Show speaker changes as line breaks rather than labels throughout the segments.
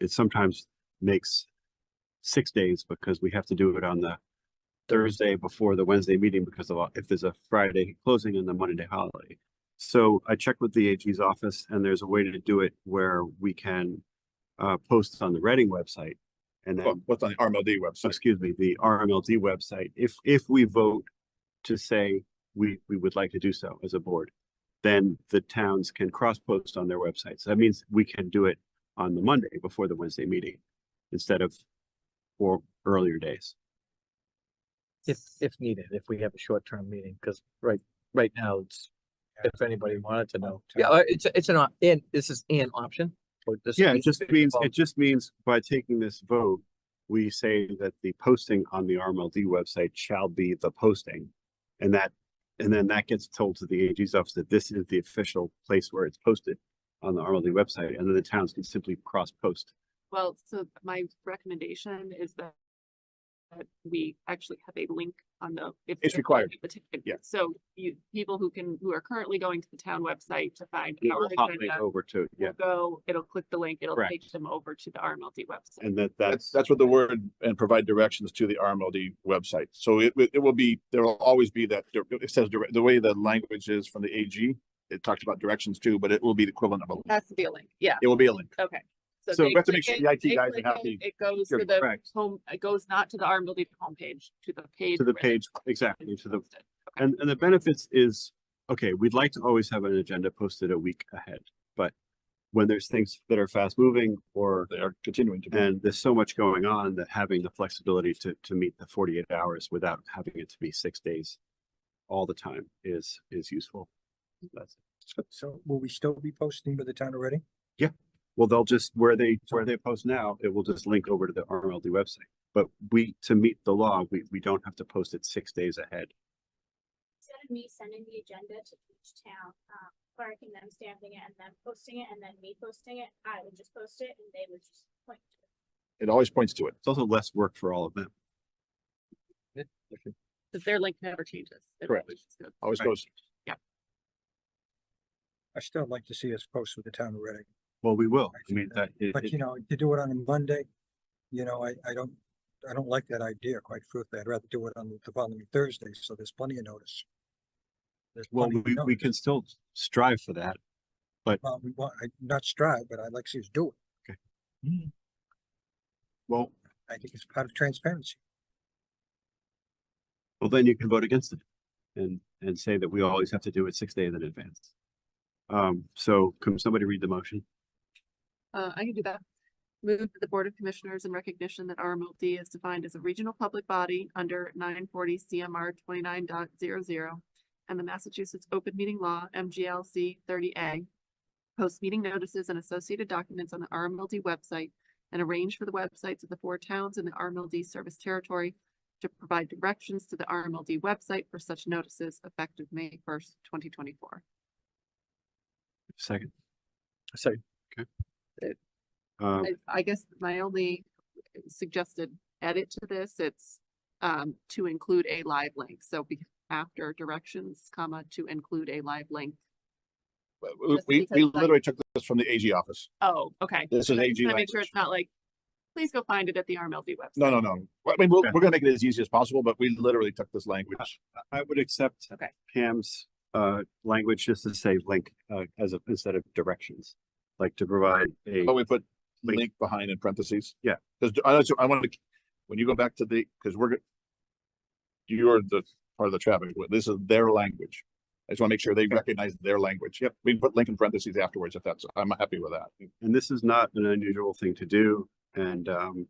it sometimes makes six days because we have to do it on the Thursday before the Wednesday meeting because of, if there's a Friday closing and the Monday holiday. So I checked with the AG's office and there's a way to do it where we can uh, post on the Reading website. And
Well,
then,
what's on the RMLD website?
excuse me, the RMLD website, if, if we vote to say we, we would like to do so as a board, then the towns can cross-post on their websites. That means we can do it on the Monday before the Wednesday meeting instead of four earlier days.
If, if needed, if we have a short-term meeting, because right, right now, it's, if anybody wanted to know. Yeah, uh, it's, it's an, op- and this is an option. or this
Yeah, it
means-
just means,
well,
it just means by taking this vote, we say that the posting on the RMLD website shall be the posting. And that, and then that gets told to the AG's office that this is the official place where it's posted on the RMLD website, and then the towns can simply cross-post.
Well, so my recommendation is that that we actually have a link on the. if
It's
they're
required.
on the ticket.
Yeah.
So you, people who can, who are currently going to the town website to find
It
our
will hot link
agenda,
over to, yeah,
will go, it'll click the link, it'll
Correct.
take them over to the RMLD website.
and that, that's,
That's, that's what the word and provide directions to the RMLD website. So it, it it will be, there will always be that, dir- it says, direct- the way the language is from the AG, it talks about directions too, but it will be the equivalent of a, link.
Has to be a link, yeah,
it will be a link.
okay.
So
they
we
have to make
click
sure the
it,
IT
they
guys are
click it,
happy.
It goes to
You're
the
correct,
home, it goes not to the RMLD homepage, to the page.
to the
where
page,
it's
exactly, to the,
posted.
and, and the benefits is, okay, we'd like to always have an agenda posted a week ahead, but when there's things that are fast-moving or
They are continuing to. be.
And there's so much going on that having the flexibility to, to meet the forty-eight hours without having it to be six days all the time is, is useful. That's,
So will we still be posting with the town already?
well, they'll just, where they, where they post now, it will just link over to the RMLD website. But we, to meet the law, we, we don't have to post it six days ahead.
instead of me sending the agenda to each town, um, clerk and them stamping it and them posting it and then me posting it, I would just post it and they would just point to it.
It always points to it.
It's also less work for all of them.
But Their link never changes. It
Correct.
always just goes-
Always
Right.
goes,
I still like to see us post with the town already,
Well, we will. I mean, that, it-
but
it-
you know, to do it on a Monday, you know, I, I don't, I don't like that idea, quite truthfully. I'd rather do it on the following Thursday, so there's plenty of notice. There's
well,
plenty of
we, we
notice.
can still strive for that.
Well, we want, I, not strive, but I'd like to see us do it.
Well,
I think it's part of transparency.
well, then you can vote against it and, and say that we always have to do it six days in advance. Um, so can somebody read the motion?
Uh, I can do that. Move that the Board of Commissioners in recognition that RMLD is defined as a regional public body under nine forty CMR 29.00 and the Massachusetts Open Meeting Law, MGLC thirty A. Post meeting notices and associated documents on the RMLD website and arrange for the websites of the four towns in the RMLD service territory to provide directions to the RMLD website for such notices effective May first, twenty twenty-four.
Second,
Sorry,
um,
I, I guess my only suggested edit to this, it's um, to include a live link. So be, after directions, comma, to include a live link.
but we-
Just
we,
because,
we
like-
literally took this from the AG office.
Oh, okay.
This is
I just
AG
wanna make sure
language.
it's not like, please go find it at the RMLD website.
No, no, no. I mean, we'll,
Yeah.
we're gonna make it as easy as possible, but we literally took this language.
I would accept
Okay.
Pam's, uh, language just to say link, uh, as a, instead of directions. Like to provide a,
But we put
Wait.
link behind in parentheses.
Yeah.
Cause I also, I wanted to, when you go back to the, cause we're. go- You're the part of the traffic, but this is their language. I just wanna make sure they recognize their language. Yep. We can put link in parentheses afterwards if that's, I'm happy with that.
and this is not an unusual thing to do, and, um,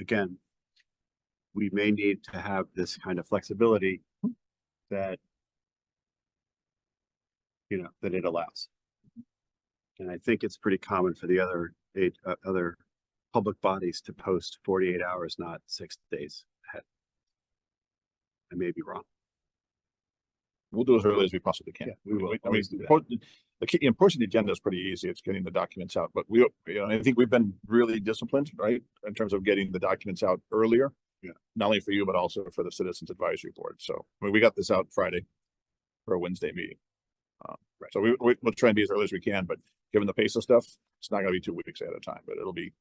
again, we may need to have this kind of flexibility that you know, that it allows. And I think it's pretty common for the other, eight, uh, other public bodies to post forty-eight hours, not six days ahead. I may be wrong.
We'll do as early as we possibly can.
Yeah, we will
I mean,
always do that.
po- the key, and pushing the agenda is pretty easy. It's getting the documents out, but we, you know, I think we've been really disciplined, right? In terms of getting the documents out earlier.
Yeah.
Not only for you, but also for the Citizens Advisory Board. So, I mean, we got this out Friday for a Wednesday meeting. Uh, So we, we, we'll try and be as early as we can, but given the pace of stuff, it's not gonna be two weeks at a time, but it'll be